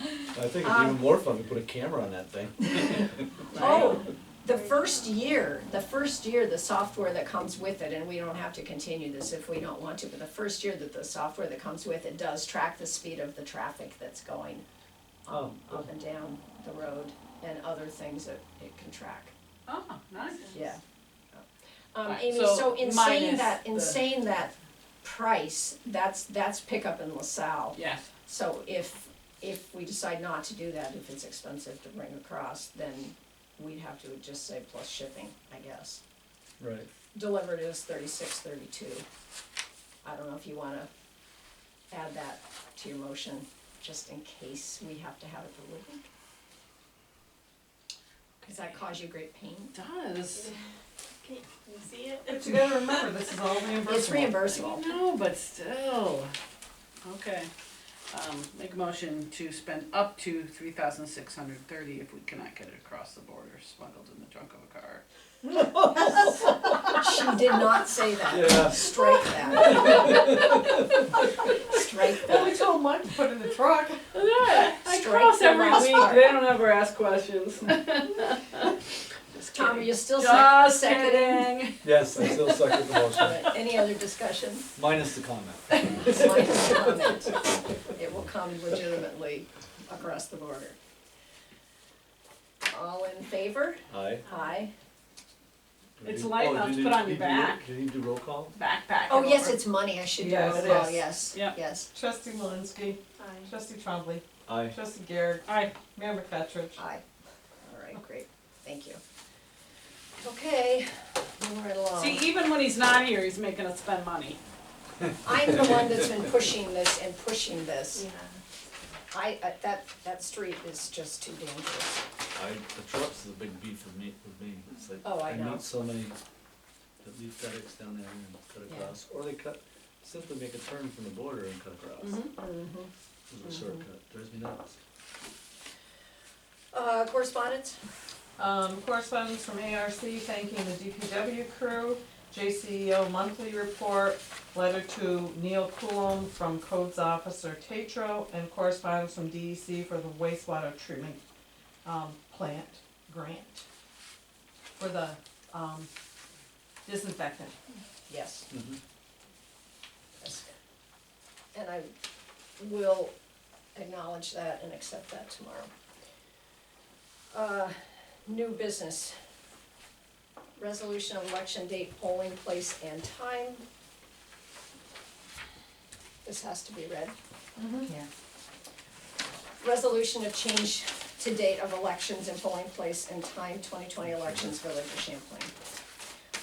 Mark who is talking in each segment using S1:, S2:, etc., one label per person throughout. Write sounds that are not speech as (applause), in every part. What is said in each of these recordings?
S1: I think it's even more fun to put a camera on that thing.
S2: Oh, the first year, the first year, the software that comes with it, and we don't have to continue this if we don't want to, but the first year that the software that comes with it does track the speed of the traffic that's going um,
S3: Oh.
S2: up and down the road and other things that it can track,
S3: Oh, nice.
S2: yeah. Um,
S3: Right,
S2: Amy,
S3: so
S2: so in saying
S3: minus
S2: that, in
S3: the-
S2: saying that price, that's, that's pickup in LaSalle.
S3: Yes,
S2: So if, if we decide not to do that, if it's expensive to bring across, then we'd have to just say plus shipping, I guess.
S1: Right.
S2: Delivered is thirty-six, thirty-two. I don't know if you wanna add that to your motion, just in case we have to have it delivered. Does that cause you great pain?
S3: does.
S4: Can you see it?
S5: But you gotta remember, this is all reimbursable.
S2: It's reimbursable.
S3: No, but still. Okay. Um, make a motion to spend up to three thousand six hundred thirty if we cannot get it across the border smuggled in the trunk of a car.
S2: She did not say that.
S1: Yeah.
S2: Strike that.
S3: (laughs)
S2: Strike
S5: Well,
S2: that.
S5: we told Mike to put it in the truck.
S3: (laughs) I
S2: Strike
S3: cross
S2: the
S3: every
S2: last
S3: week,
S2: part.
S3: they don't ever ask questions. Just
S2: Tom, are
S3: kidding.
S2: you still sec-
S3: Just
S2: seconding?
S3: kidding.
S1: Yes, I still suck at the motion,
S2: But Any other discussion?
S1: minus the comment.
S2: It's my comment. It will come legitimately across the border. All in favor?
S1: Aye.
S2: Aye.
S3: It's
S1: Oh,
S3: light enough
S1: did
S3: to
S1: you-
S3: put on
S1: did
S3: your
S1: you-
S3: back.
S1: Do you need to roll call?
S3: Backpack.
S2: Oh, yes,
S3: over.
S2: it's money, I should do it,
S5: Yes,
S2: oh,
S5: yes.
S2: yes,
S3: Yeah.
S2: yes,
S5: Trustee Malinsky,
S4: Aye.
S5: trustee Trombley,
S1: Aye.
S5: trustee Garrett,
S3: Aye.
S5: Mayor McFetrich.
S2: aye. All right, great, thank you. Okay, moving right along.
S3: See, even when he's not here, he's making us spend money.
S2: I'm the one that's been pushing this and pushing this.
S4: Yeah.
S2: I, I- that, that street is just too dangerous.
S1: I, the trucks is a big beef for me, with me, it's like,
S2: Oh, I
S1: I
S2: know.
S1: meet so many that leave FedEx down there and
S2: Yeah.
S1: cut across, or they cut, simply make a turn from the border and cut across,
S2: Mm-hmm.
S3: Mhm.
S1: it's a shortcut, drives me nuts.
S2: Uh, correspondence?
S5: Um, correspondence from ARC thanking the DPW crew, JCEO monthly report, letter to Neil Coulomb from Codes Officer Tatro, and correspondence from DEC for the wastewater treatment, um, plant grant for the, um, disinfectant.
S2: Yes.
S1: Mhm.
S2: Yes. And I will acknowledge that and accept that tomorrow. Uh, New business. Resolution of election date, polling place and time. This has to be read.
S5: Yeah.
S2: Resolution of change to date of elections and polling place and time, twenty twenty elections, Village of Champlain.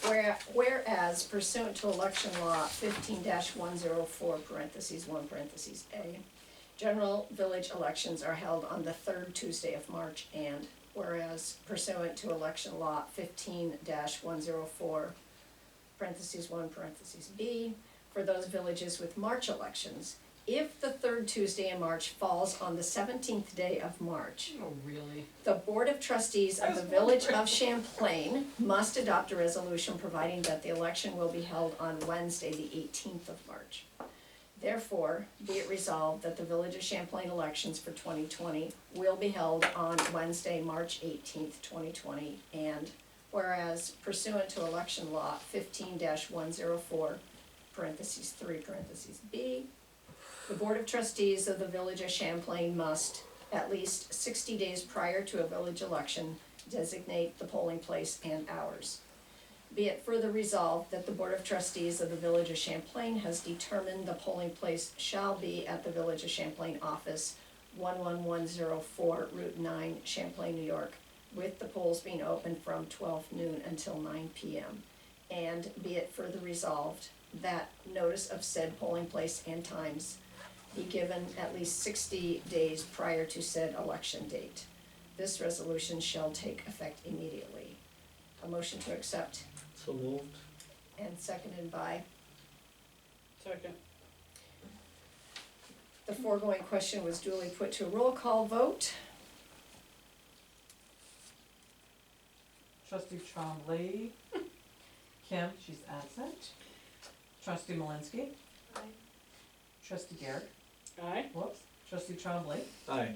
S2: Where, whereas pursuant to election law fifteen one zero four parentheses one parentheses A, general village elections are held on the third Tuesday of March and whereas pursuant to election law fifteen one zero four parentheses one parentheses B, for those villages with March elections, if the third Tuesday in March falls on the seventeenth day of March,
S3: Oh, really?
S2: the Board of Trustees of the Village of Champlain must adopt a resolution providing that the election will be held on Wednesday, the eighteenth of March. Therefore, be it resolved that the Village of Champlain elections for twenty twenty will be held on Wednesday, March eighteenth, twenty twenty, and whereas pursuant to election law fifteen one zero four, parentheses three, parentheses B, the Board of Trustees of the Village of Champlain must, at least sixty days prior to a village election, designate the polling place and hours. Be it further resolved that the Board of Trustees of the Village of Champlain has determined the polling place shall be at the Village of Champlain office, one one one zero four Route nine, Champlain, New York, with the polls being open from twelve noon until nine P M. And be it further resolved that notice of said polling place and times be given at least sixty days prior to said election date. This resolution shall take effect immediately. A motion to accept
S1: So moved.
S2: and seconded by,
S3: Second.
S2: the foregoing question was duly put to a roll call vote.
S5: Trustee Trombley. Kim, she's absent. Trustee Malinsky.
S4: Aye.
S5: Trustee Garrett.
S3: Aye.
S5: Whoops. Trustee Trombley.
S1: Aye.